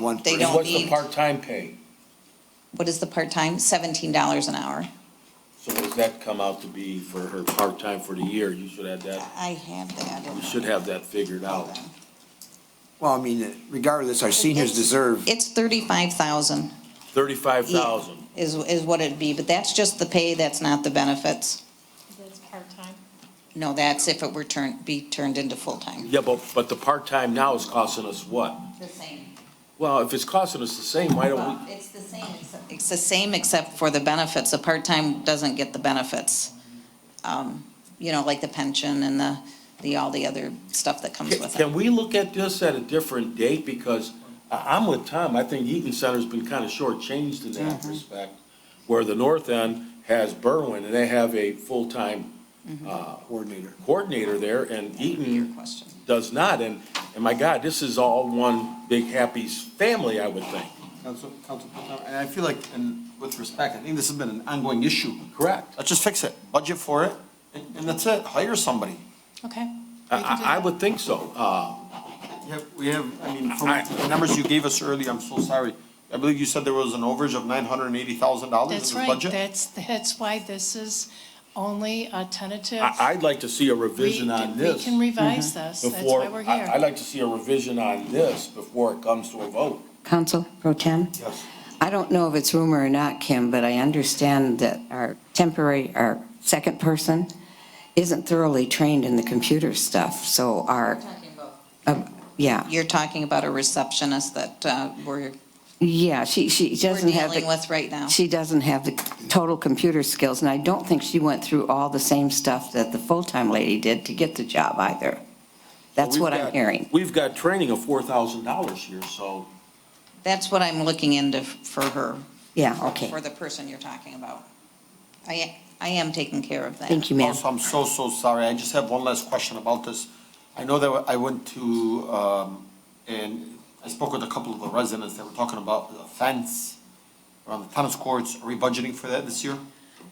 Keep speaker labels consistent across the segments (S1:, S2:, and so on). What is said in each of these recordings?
S1: one
S2: They
S1: person.
S2: don't
S3: What's the
S2: need-
S3: part-time pay?
S2: What is the part-time? Seventeen dollars an hour.
S3: So what does that come out to be for her part-time for the year? You should have that,
S2: I have that. in
S3: you should have that figured out.
S1: Well, I mean, regardless, our seniors deserve,
S2: It's thirty-five thousand
S3: Thirty-five thousand.
S2: is, is what it'd be, but that's just the pay, that's not the benefits.
S4: That's part-time.
S2: No, that's if it were turned, be turned into full-time.
S3: Yeah, but, but the part-time now is costing us what?
S2: The same.
S3: Well, if it's costing us the same, why don't
S2: Well,
S3: we,
S2: it's the same, except- it's the same except for the benefits. A part-time doesn't get the benefits. Um, You know, like the pension and the, the, all the other stuff that comes
S3: Can-
S2: with it.
S3: can we look at this at a different date? Because I, I'm with Tom. I think Eaton Center's been kind of shortchanged in that
S2: Mm-hmm.
S3: respect. Where the north end has Berwin and they have a full-time
S2: Mm-hmm.
S3: uh,
S1: coordinator.
S3: coordinator there and
S2: Your
S3: Eaton
S2: question.
S3: does not. And, and my God, this is all one big happy s- family, I would think.
S5: Council, Council, and I feel like, and with respect, I think this has been an ongoing issue.
S3: Correct.
S5: Let's just fix it, budget for it, and, and that's it, hire somebody.
S4: Okay.
S3: I, I, I would think so. Uh,
S5: We have- We have, I mean, from
S3: I-
S5: the numbers you gave us earlier, I'm so sorry. I believe you said there was an overage of nine hundred and eighty thousand dollars in
S4: That's
S5: this
S4: right.
S5: budget?
S4: That's, that's why this is only a tentative.
S3: I, I'd like to see a
S4: We-
S3: revision on
S4: We
S3: this Mm-hmm.
S4: can revise this. That's
S3: before,
S4: why we're
S3: I, I'd
S4: here.
S3: like to see a revision on this before it comes to a vote.
S6: Council Pro Tem?
S5: Yes.
S6: I don't know if it's rumor or not, Kim, but I understand that our temporary, our second person isn't thoroughly trained in the computer stuff, so our, yeah,
S2: You're talking about a receptionist that uh, we're,
S6: yeah, she, she
S2: we're
S6: doesn't have
S2: dealing
S6: the,
S2: with right now.
S6: she doesn't have the total computer skills, and I don't think she went through all the same stuff that the full-time lady did to get the job either. That's
S3: We've
S6: what I'm
S3: got-
S6: hearing.
S3: We've got training of four thousand dollars here, so
S2: That's what I'm looking into for her,
S6: Yeah, okay.
S2: for the person you're talking about. I, I am taking care of that.
S6: Thank you, ma'am.
S5: Also, I'm so, so sorry. I just have one last question about this. I know that I went to, um, and I spoke with a couple of the residents that were talking about the fence around the tennis courts. Are we budgeting for that this year?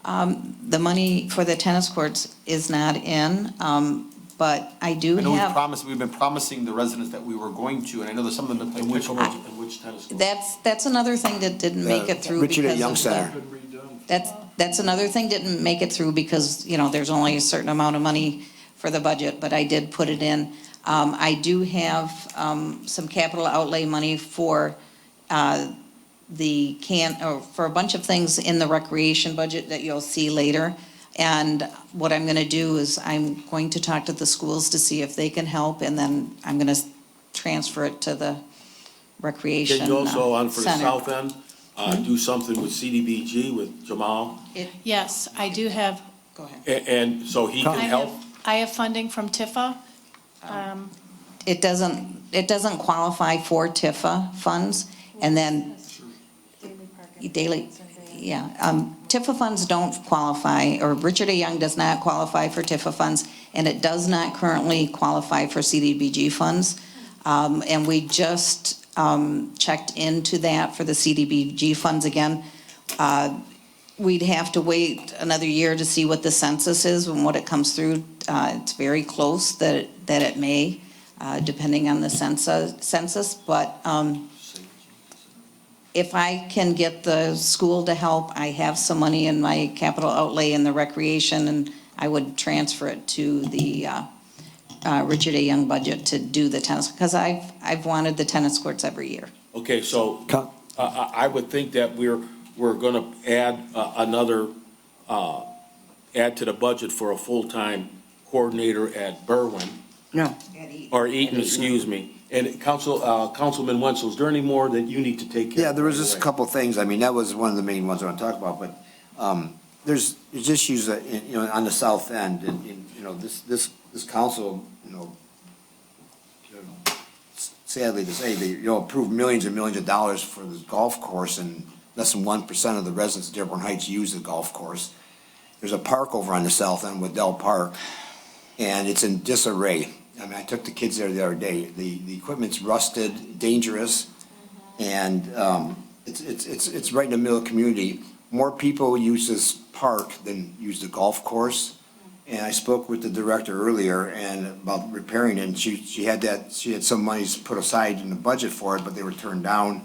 S2: The money for the tennis courts is not in, um, but I do
S5: I know we
S2: have.
S5: promised, we've been promising the residents that we were going to, and I know that some of them have
S3: in
S5: been
S3: which, in
S5: pickleball.
S3: which tennis court?
S2: That's, that's another thing that didn't make it through because
S1: Richard
S2: of
S1: at Young Center.
S2: the. That's, that's another thing didn't make it through because, you know, there's only a certain amount of money for the budget, but I did put it in. Um, I do have, um, some capital outlay money for, uh, the can, or for a bunch of things in the recreation budget that you'll see later. And what I'm gonna do is I'm going to talk to the schools to see if they can help, and then I'm gonna s- transfer it to the recreation.
S3: Can you also,
S2: uh,
S3: on for the
S2: center.
S3: south end, uh, do something with CDBG with Jamal?
S2: It-
S4: Yes, I do have,
S2: Go ahead.
S3: And, and so he
S4: I
S3: can
S4: have,
S3: help?
S4: I have funding from Tifa. Um,
S2: it doesn't, it doesn't qualify for TIFA funds, and then daily, yeah, um, TIFA funds don't qualify, or Richard A. Young does not qualify for TIFA funds, and it does not currently qualify for CDBG funds. Um, and we just, um, checked into that for the CDBG funds again. Uh, we'd have to wait another year to see what the census is and what it comes through. Uh, it's very close that, that it may, uh, depending on the census, census, but, um, if I can get the school to help, I have some money in my capital outlay in the recreation, and I would transfer it to the, uh, uh, Richard A. Young budget to do the tennis, because I've, I've wanted the tennis courts every year.
S3: Okay, so, uh,
S1: Con-
S3: I, I would think that we're, we're gonna add, uh, another, uh, add to the budget for a full-time coordinator at Berwin,
S6: No,
S3: or Eaton, excuse me. And Council, uh, Councilman Wenzel, is there any more that you need to take care of?
S1: Yeah, there was just a
S3: right away?
S1: couple things, I mean, that was one of the main ones I want to talk about, but, um, there's, there's issues that, you know, on the south end, and, and, you know, this, this, this council, you know, I don't know, sadly to say, they, you know, approve millions and millions of dollars for this golf course, and less than one percent of the residents of Dearborn Heights use the golf course. There's a park over on the south end, Waddell Park, and it's in disarray. I mean, I took the kids there the other day, the, the equipment's rusted, dangerous, and, um, it's, it's, it's, it's right in the middle of the community. More people use this park than use the golf course. And I spoke with the director earlier and about repairing it, and she, she had that, she had some monies put aside in the budget for it, but they were turned down.